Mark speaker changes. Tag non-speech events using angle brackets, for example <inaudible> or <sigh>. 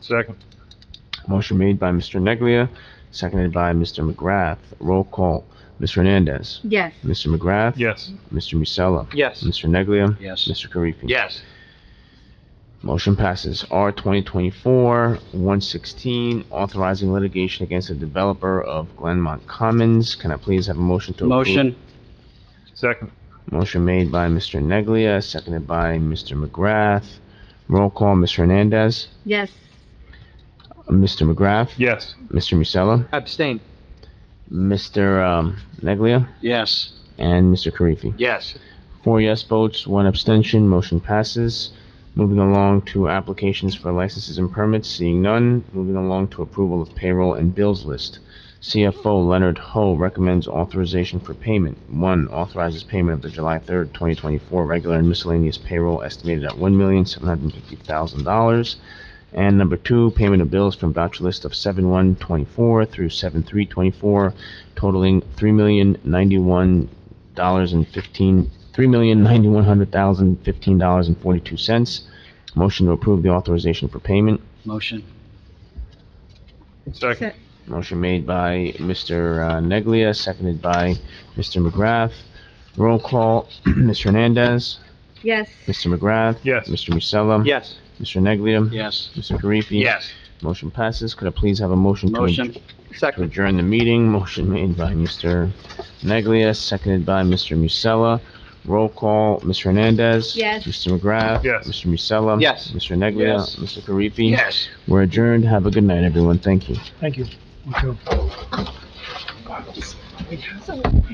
Speaker 1: Second.
Speaker 2: Motion made by Mr. Neglia, seconded by Mr. McGrath. Roll call. Ms. Hernandez.
Speaker 3: Yes.
Speaker 2: Mr. McGrath.
Speaker 1: Yes.
Speaker 2: Mr. Musella.
Speaker 4: Yes.
Speaker 2: Mr. Neglia.
Speaker 4: Yes.
Speaker 2: Mr. Karifi.
Speaker 4: Yes.
Speaker 2: Motion passes. R 2024-116, authorizing litigation against the developer of Glenmont Commons. Can I please have a motion to approve?
Speaker 4: Motion.
Speaker 1: Second.
Speaker 2: Motion made by Mr. Neglia, seconded by Mr. McGrath. Roll call, Ms. Hernandez.
Speaker 3: Yes.
Speaker 2: Mr. McGrath.
Speaker 1: Yes.
Speaker 2: Mr. Musella.
Speaker 4: Abstain.
Speaker 2: Mr. um, Neglia.
Speaker 4: Yes.
Speaker 2: And Mr. Karifi.
Speaker 4: Yes.
Speaker 2: Four yes votes, one abstention, motion passes. Moving along to applications for licenses and permits, seeing none. Moving along to approval of payroll and bills list. CFO Leonard Ho recommends authorization for payment. One, authorizes payment of the July 3rd, 2024 regular and miscellaneous payroll estimated at $1,750,000. And number two, payment of bills from voucher list of 7/1/24 through 7/3/24 totaling $3,091.15 three million ninety-one hundred thousand fifteen dollars and forty-two cents. Motion to approve the authorization for payment.
Speaker 4: Motion.
Speaker 1: Second.
Speaker 3: Se-
Speaker 2: Motion made by Mr. uh, Neglia, seconded by Mr. McGrath. Roll call, <clears throat> Mr. Hernandez,
Speaker 3: Yes.
Speaker 2: Mr. McGrath.
Speaker 1: Yes.
Speaker 2: Mr. Musella.
Speaker 4: Yes.
Speaker 2: Mr. Neglia.
Speaker 4: Yes.
Speaker 2: Mr. Karifi.
Speaker 4: Yes.
Speaker 2: Motion passes. Could I please have a motion to
Speaker 4: Motion.
Speaker 2: to
Speaker 4: Second.
Speaker 2: adjourn the meeting. Motion made by Mr. Neglia, seconded by Mr. Musella. Roll call, Mr. Hernandez.
Speaker 3: Yes.
Speaker 2: Mr. McGrath.
Speaker 1: Yes.
Speaker 2: Mr. Musella.
Speaker 4: Yes.
Speaker 2: Mr. Neglia.
Speaker 4: Yes.
Speaker 2: Mr. Karifi.
Speaker 4: Yes.
Speaker 2: We're adjourned. Have a good night, everyone. Thank you.
Speaker 5: Thank you. You too.